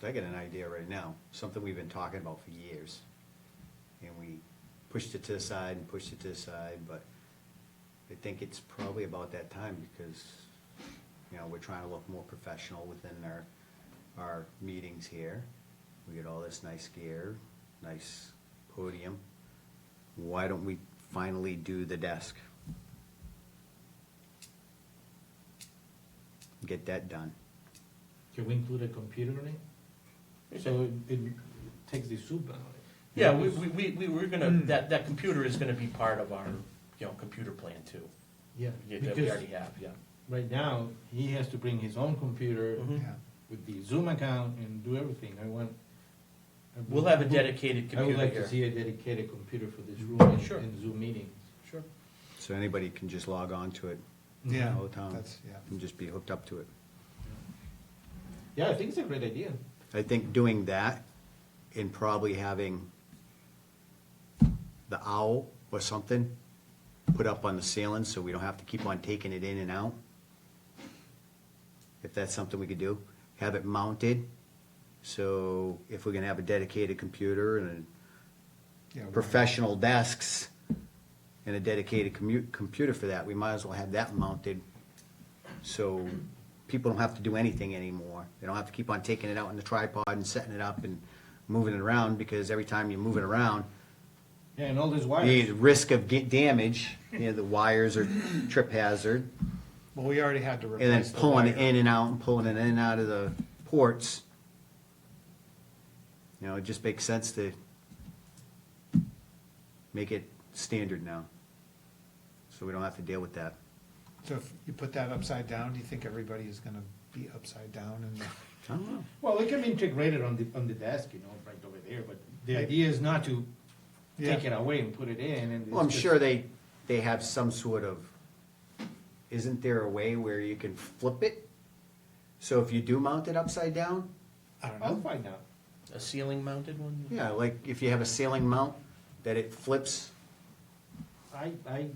So I get an idea right now, something we've been talking about for years. And we pushed it to the side and pushed it to the side, but I think it's probably about that time because, you know, we're trying to look more professional within our, our meetings here. We get all this nice gear, nice podium. Why don't we finally do the desk? Get that done. Can we include a computer in it? So it- it takes the soup out of it. Yeah, we, we, we, we we're gonna, Hmm. that, that computer is gonna be part of our, you know, computer plan too. Yeah, Yeah, That we because already have, yeah. right now, he has to bring his own computer Mhm. with the Zoom account and do everything. I want. I would- We'll have a dedicated I would computer like to here. see a dedicated computer for this room and Sure. and Zoom meeting. Sure. So anybody can just log on to it Yeah, Old town. that's, yeah. and just be hooked up to it. Yeah, I think it's a great idea. I think doing that and probably having the owl or something put up on the ceiling so we don't have to keep on taking it in and out. If that's something we could do, have it mounted. So if we're gonna have a dedicated computer and Yeah, we- professional desks and a dedicated commu- computer for that, we might as well have that mounted. So people don't have to do anything anymore. They don't have to keep on taking it out in the tripod and setting it up and moving it around, because every time you move it around, Yeah, and all these the wires. risk of get damage, you know, the wires are trip hazard. Well, we already had to And then replace the pulling it wire. in and out and pulling it in and out of the ports. You know, it just makes sense to make it standard now. So we don't have to deal with that. So if you put that upside down, do you think everybody is gonna be upside down and, I don't know. Well, it can be integrated on the, on the desk, you know, right over there, but the idea is not to Yeah. take it away and put it in and. Well, I'm it's just- sure they, they have some sort of, isn't there a way where you can flip it? So if you do mount it upside down, I don't I'll know, find out. A ceiling mounted one? yeah, like if you have a ceiling mount, that it flips, I, I,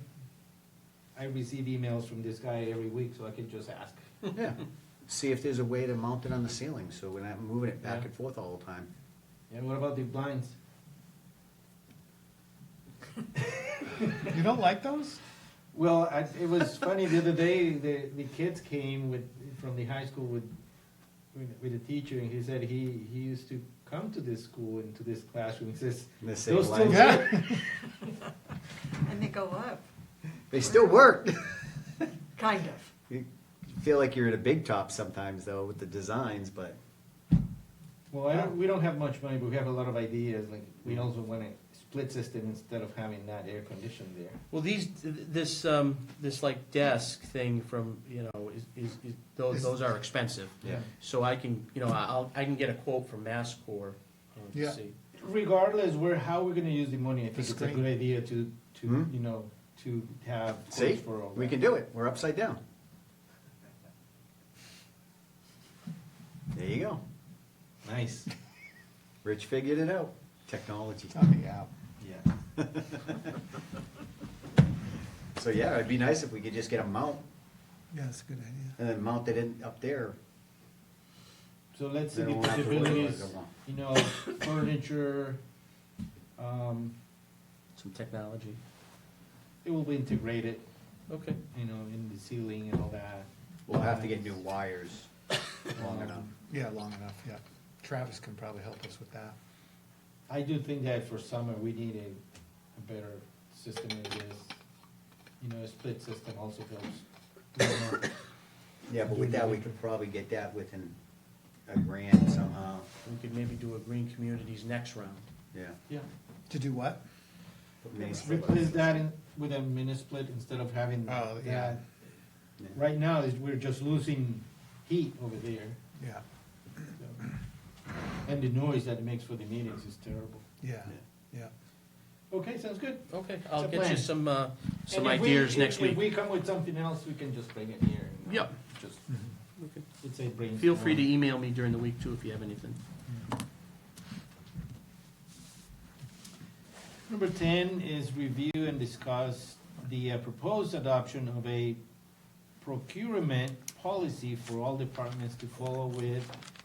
I receive emails from this guy every week, so I can just ask. yeah. See if there's a way to mount it on the ceiling, so we're not moving it back Yeah. and forth all the time. And what about the blinds? you don't like those? Well, I, it was funny, the other day, the, the kids came with, from the high school with, with with a teacher, and he said he, he used to come to this school and to this classroom, he says, The same those still lines. work? And they go up, They still work. kind of. you feel like you're in a big top sometimes though with the designs, but Well, I don't, we don't have much money, but we have a lot of ideas, like, we also want a split system instead of having that air conditioned there. Well, these, this, um, this like desk thing from, you know, is, is, is, those, This- those are expensive. Yeah. So I can, you know, I'll, I can get a quote from Mass Corp, um, to Yeah. see. Regardless where, how we're gonna use the money, I think it's a screen. good idea to, to, Hmm? you know, to have. see, quotes for all we that. can do it. We're upside down. There you go. Nice, Rich figured it out. Technology. Oh, yeah. yeah. So yeah, it'd be nice if we could just get a mount Yeah, that's a good idea. and then mount it in up there. So let's see They the won't have to worry about possibilities, it, they won't. you know, furniture, um, Some technology. it will be integrated, Okay. you know, in the ceiling and all that. We'll have to get new wires long enough. Yeah, long enough, yeah. Travis can probably help us with that. I do think that for summer, we need a, a better system than this, you know, a split system also goes. Yeah, but with that, we could probably get that within a grand somehow. We could maybe do a Green Communities next round. Yeah. Yeah, To do what? replace that in, with a mini split instead of having Oh, yeah. that. Right now, is, we're just losing heat over there, Yeah, so. And the noise that it makes for the meetings is terrible. yeah, yeah. Okay, sounds good. Okay, It's I'll a get you plan. some, uh, some And if we- ideas if- next If week. we come with something else, we can just bring it here. and uh, Yep. Mm-hmm. Just, Okay. it's a brainstorm. Feel free to email me during the week too if you have anything. Number ten is review and discuss the uh, proposed adoption of a procurement policy for all departments to follow with